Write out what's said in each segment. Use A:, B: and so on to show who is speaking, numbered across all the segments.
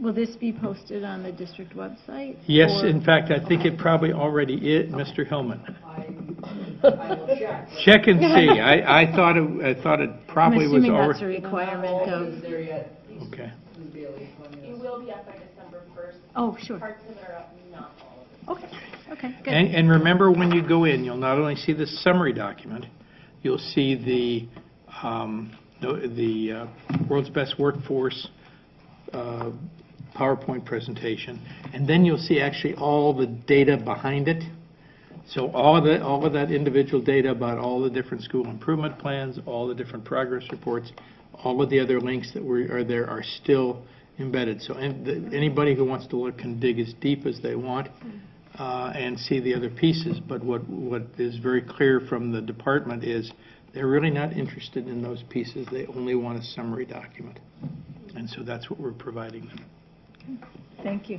A: Will this be posted on the district website?
B: Yes,
A: Or-
B: in fact, I think
A: Okay.
B: it probably already is, Mr. Hillman.
C: I, I will check.
B: Check and see. I, I thought it, I thought it probably was
A: I'm assuming that's a
B: already.
A: requirement of,
C: there yet.
B: Okay.
D: It will be up by December 1st.
A: oh, sure.
D: Parts of it are up, not all of it.
A: Okay, okay, good.
B: And, and remember, when you go in, you'll not only see the summary document, you'll see the, um, the- the uh, World's Best Workforce uh, PowerPoint presentation, and then you'll see actually all the data behind it. So all of the, all of that individual data about all the different school improvement plans, all the different progress reports, all of the other links that were, are there are still embedded. So an- the- anybody who wants to look can dig as deep as they want uh, and see the other pieces. But what, what is very clear from the department is they're really not interested in those pieces. They only want a summary document. And so that's what we're providing them.
A: Thank you.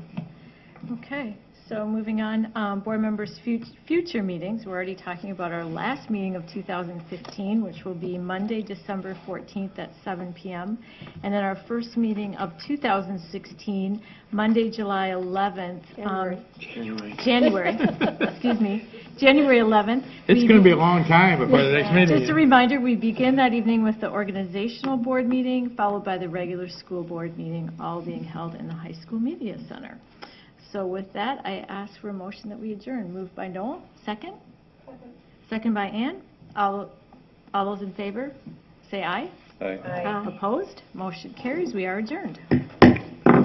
A: Okay, so moving on, um, board members' fut- future meetings, we're already talking about our last meeting of 2015, which will be Monday, December 14th at 7 PM, and then our first meeting of 2016, Monday, July 11th. um,
B: January.
A: January, excuse me, January 11th.
B: It's
A: We
B: going to be
A: be-
B: a long time before the next meeting.
A: Just a reminder, we begin that evening with the organizational board meeting, followed by the regular school board meeting, all being held in the high school media center. So with that, I ask for a motion that we adjourn. Moved by Noel, second? Second by Ann. All, all those in favor, say aye. Uh,
E: Aye.
A: Opposed? Motion carries. We are adjourned.